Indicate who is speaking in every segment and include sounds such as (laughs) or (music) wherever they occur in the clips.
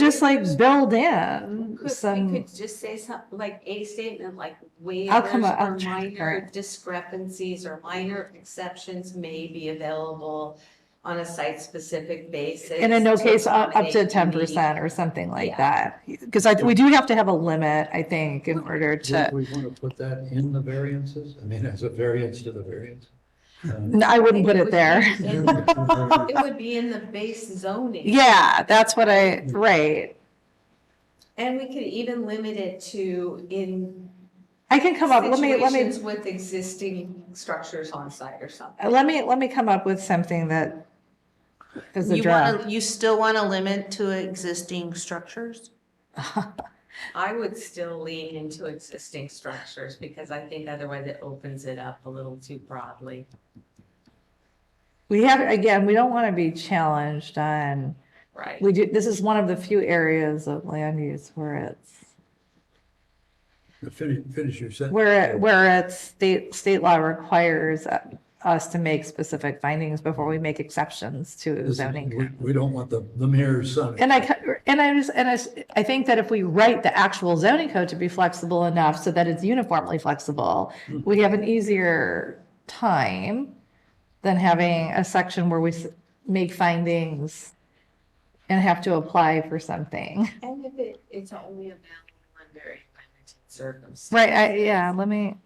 Speaker 1: just like build in
Speaker 2: Could, we
Speaker 1: some,
Speaker 2: could just say something like a statement like
Speaker 1: I'll come
Speaker 2: waivers
Speaker 1: up-
Speaker 2: or
Speaker 1: I'll check for
Speaker 2: minor
Speaker 1: it.
Speaker 2: discrepancies or minor exceptions may be available on a site-specific basis.
Speaker 1: and in no
Speaker 2: to
Speaker 1: case, up up to
Speaker 2: accommodate
Speaker 1: ten
Speaker 2: the needs."
Speaker 1: percent or something like
Speaker 2: Yeah.
Speaker 1: that. Because I, we do have to have a limit, I think, in order
Speaker 3: Do
Speaker 1: to,
Speaker 3: we want to put that in the variances? I mean, as a variance to the variance?
Speaker 1: (laughs)
Speaker 3: Um,
Speaker 1: No, I wouldn't put it there.
Speaker 2: It would be in the base
Speaker 1: (laughs)
Speaker 2: zoning.
Speaker 1: Yeah, that's what I, right.
Speaker 2: And we could even limit it to in
Speaker 1: I can come up, let me, let me,
Speaker 2: situations with existing structures on site or something.
Speaker 1: let me, let me come up with something that is a
Speaker 4: You
Speaker 1: draft.
Speaker 4: want to, you still want to limit to existing structures?
Speaker 2: I would still lean into existing structures because I think otherwise it opens it up a little too broadly.
Speaker 1: We have, again, we don't want to be challenged on,
Speaker 2: Right.
Speaker 1: we do, this is one of the few areas of land use where it's
Speaker 3: Finish, finish your sentence.
Speaker 1: Where, it- where it's state, state law requires uh, us to make specific findings before we make exceptions to
Speaker 3: This is- we-
Speaker 1: zoning.
Speaker 3: We don't want the, the mayor's son.
Speaker 1: And I, ca- and I just, and I, s- I think that if we write the actual zoning code to be flexible enough so that it's uniformly flexible,
Speaker 3: Hmm.
Speaker 1: we have an easier time than having a section where we s- make findings and have to apply for something.
Speaker 2: And if it, it's only available under a limited circumstance.
Speaker 1: Right, I, yeah, let me,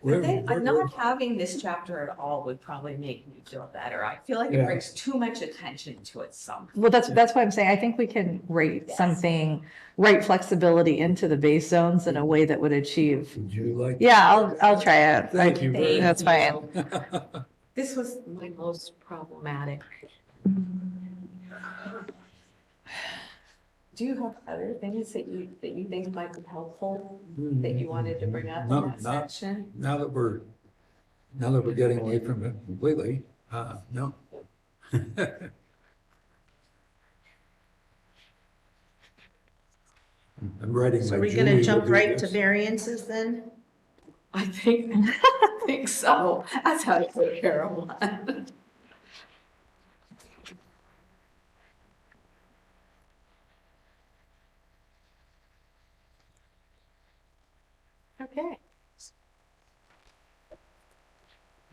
Speaker 3: Where-
Speaker 2: But then,
Speaker 3: where-
Speaker 2: I'm not having this chapter at all would probably make me feel better. I feel like
Speaker 3: Yeah.
Speaker 2: it brings too much attention to it some.
Speaker 1: Well, that's, that's why I'm saying, I think we can write
Speaker 2: Yes.
Speaker 1: something, write flexibility into the base zones in a way that would achieve.
Speaker 3: Would you like? (laughs)
Speaker 1: Yeah, I'll, I'll try it.
Speaker 3: Thank you. very
Speaker 1: That's
Speaker 2: Thank
Speaker 1: fine.
Speaker 3: much.
Speaker 2: This was my most problematic. Do you have other things that you, that you think might be helpful, that you wanted to bring up
Speaker 3: No,
Speaker 2: in that
Speaker 3: not-
Speaker 2: section?
Speaker 3: Now that we're, now that we're getting away from it completely, uh, no. (laughs) I'm writing.
Speaker 4: So
Speaker 3: my
Speaker 4: are we going
Speaker 3: Julie
Speaker 4: to
Speaker 3: will
Speaker 4: jump
Speaker 3: do
Speaker 4: right to
Speaker 3: this.
Speaker 4: variances then?
Speaker 2: I think, I think so. That's how I took care of one. Okay.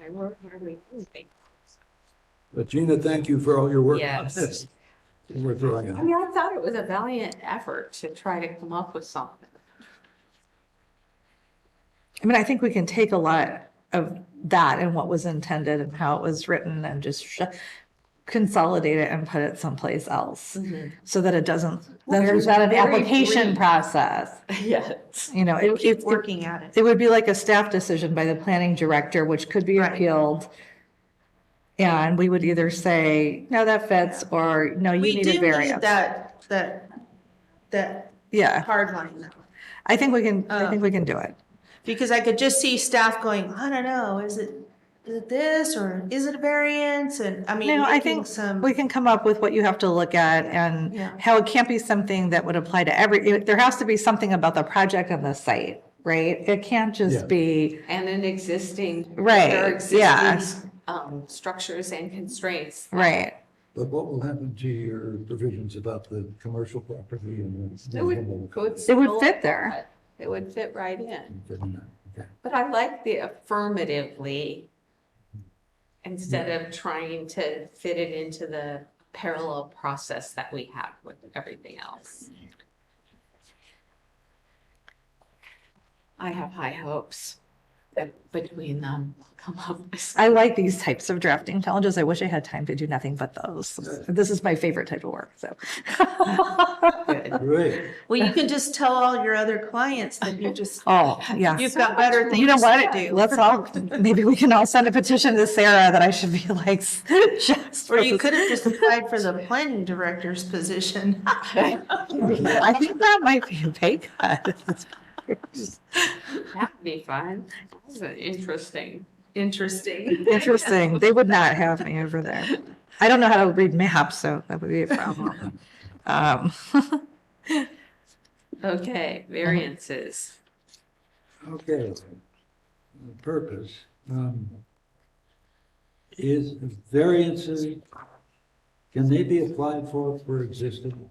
Speaker 2: I work, where we moving?
Speaker 3: But Gina, thank you for all your work on
Speaker 2: Yes.
Speaker 3: this. We're throwing
Speaker 2: I
Speaker 3: out.
Speaker 2: mean, I thought it was a valiant effort to try to come up with something.
Speaker 1: I mean, I think we can take a lot of that and what was intended and how it was written and just sh- consolidate it and put it someplace else so that it doesn't,
Speaker 2: Mm-hmm. Well,
Speaker 1: that there's
Speaker 2: it's
Speaker 1: not an
Speaker 2: very
Speaker 1: application
Speaker 2: brief.
Speaker 1: process.
Speaker 2: Yes.
Speaker 1: You know, it,
Speaker 4: Keep
Speaker 1: it, it-
Speaker 4: working at it.
Speaker 1: It would be like a staff decision by the planning director, which could be
Speaker 4: Right.
Speaker 1: appealed. And we would either say, no, that fits, or no, you
Speaker 4: We
Speaker 1: need
Speaker 4: do
Speaker 1: a
Speaker 4: need
Speaker 1: variance.
Speaker 4: that, that, that
Speaker 1: Yeah,
Speaker 4: hard line though.
Speaker 1: I think we can, I
Speaker 4: Uh,
Speaker 1: think we can do it.
Speaker 4: Because I could just see staff going, I don't know, is it, is it this or is it a variance? And I mean,
Speaker 1: No, I
Speaker 4: making
Speaker 1: think
Speaker 4: some,
Speaker 1: we can come up with what you have to look at and
Speaker 4: Yeah.
Speaker 1: how it can't be something that would apply to every, it- there has to be something about the project and the site, right? It can't
Speaker 3: Yeah.
Speaker 1: just be,
Speaker 2: And an existing.
Speaker 1: Right,
Speaker 2: there are
Speaker 1: yeah.
Speaker 2: existing, Um, structures and constraints.
Speaker 1: right.
Speaker 3: But what will happen to your provisions about the commercial property and? the-
Speaker 2: It would, it would.
Speaker 1: It would
Speaker 2: still-
Speaker 1: fit there.
Speaker 2: It would fit right in.
Speaker 3: Okay.
Speaker 2: But I like the affirmatively instead of trying to fit it into the parallel process that we have with everything else. I have high hopes that between them we'll come up with something.
Speaker 1: I like these types of drafting challenges. I wish I had time to do nothing but those. This is my favorite type of work, so.
Speaker 2: good.
Speaker 3: (laughs) Great.
Speaker 4: well, you can just tell all your other clients that you just,
Speaker 1: (laughs) Oh, yeah.
Speaker 4: you've got better
Speaker 1: You
Speaker 4: things
Speaker 1: know
Speaker 4: to
Speaker 1: what?
Speaker 4: do.
Speaker 1: Let's all, maybe we can all send a petition to Sarah that I should be like, (laughs) just.
Speaker 4: Or you could have just applied for the
Speaker 1: (laughs)
Speaker 4: planning director's position. (laughs)
Speaker 1: I think that might be a pay cut. (laughs)
Speaker 2: That'd be fun. That's an interesting, interesting.
Speaker 1: Interesting. They would not have me over there. I don't know how to read maps, so that would be a problem. Um, (laughs)
Speaker 2: Okay, variances.
Speaker 3: Okay. The Purpose, um, is variances, can they be applied for for existing